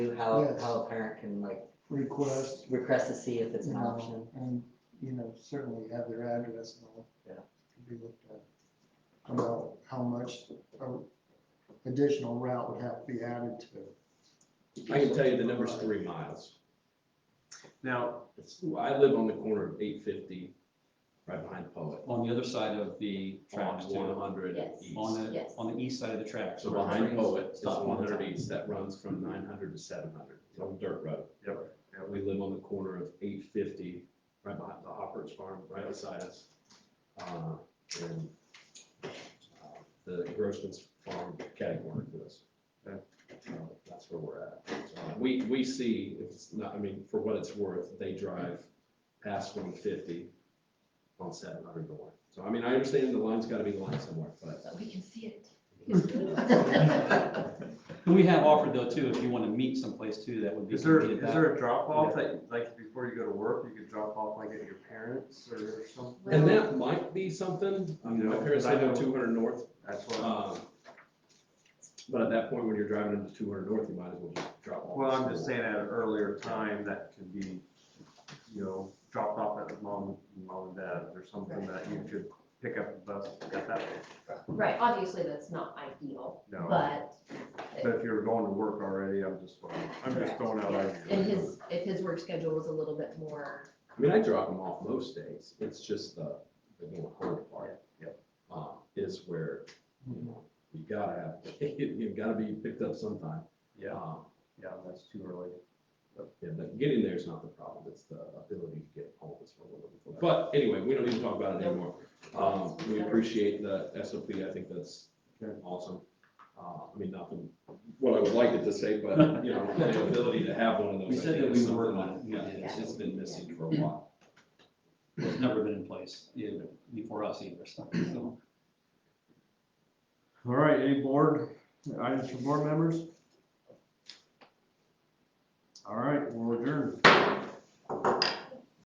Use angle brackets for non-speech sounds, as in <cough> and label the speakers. Speaker 1: to how,
Speaker 2: Yes.
Speaker 1: how a parent can like
Speaker 2: request,
Speaker 1: request to see if it's
Speaker 2: you
Speaker 1: an
Speaker 2: know,
Speaker 1: option.
Speaker 2: and, you know, certainly have their address and all.
Speaker 1: Yeah.
Speaker 2: Can be looked at. About how much uh, additional route would have to be added to.
Speaker 3: I can tell you the number's three miles. Now, it's- I live on the corner of eight fifty, right behind Poet,
Speaker 4: On the other side of the tracks
Speaker 3: on one
Speaker 4: too,
Speaker 3: hundred
Speaker 5: Yes.
Speaker 3: east.
Speaker 4: on the,
Speaker 5: Yes.
Speaker 4: on the east side of the tracks.
Speaker 3: So
Speaker 4: where
Speaker 3: behind
Speaker 4: trains
Speaker 3: Poet is
Speaker 4: stop all
Speaker 3: one
Speaker 4: the
Speaker 3: hundred
Speaker 4: time.
Speaker 3: east that runs from nine hundred to seven hundred, it's on dirt road. Yep. And we live on the corner of eight fifty, right behind the Hoppers Farm, right beside us. Uh, And uh, the Grossman's Farm category to us. So That's where we're at. So We, we see, if it's not, I mean, for what it's worth, they drive past one fifty on seven hundred north. So I mean, I understand the line's gotta be lined somewhere, but.
Speaker 5: But we can see it.
Speaker 4: And we have offered though too, if you want to meet someplace too, that would be.
Speaker 6: Is there, is
Speaker 4: convenient that-
Speaker 6: there a drop off that, like, before you go to work, you could drop off like at your parents or something?
Speaker 3: And that might be something, I mean, my parents live on two hundred north,
Speaker 6: That's what,
Speaker 3: um, but at that point, when you're driving into two hundred north, you might as well just drop off.
Speaker 6: well, I'm just saying at an earlier time that could be, you know, dropped off at the mom, mom and dad or something that you could pick up the bus at that.
Speaker 5: Right, obviously, that's not ideal,
Speaker 6: No,
Speaker 5: but
Speaker 6: but if you're going to work already, I'm just, I'm just throwing out
Speaker 5: yeah, if
Speaker 6: ideas.
Speaker 5: his, if his work schedule was a little bit more,
Speaker 3: I mean, I drop them off most days, it's just the, the more hard part.
Speaker 6: Yep.
Speaker 3: Uh, is where, you know, you gotta have, <laughs> you gotta be picked up sometime.
Speaker 6: Yeah,
Speaker 3: Um,
Speaker 6: yeah, that's too early.
Speaker 3: Yeah, but getting there is not the problem, it's the ability to get home is what we're looking for. But anyway, we don't need to talk about it anymore. Um, we appreciate the SOP, I think that's awesome. Uh, I mean, nothing, what I would like it to say, but, you know, the ability to have one of those.
Speaker 4: We
Speaker 3: I
Speaker 4: said
Speaker 3: think
Speaker 4: that
Speaker 3: is
Speaker 4: we would work
Speaker 3: something Yeah,
Speaker 4: on it. We did.
Speaker 3: it's just been missing for a while.
Speaker 4: It's never been in place, either, before us either, so. so.
Speaker 6: All right, any board, items for board members?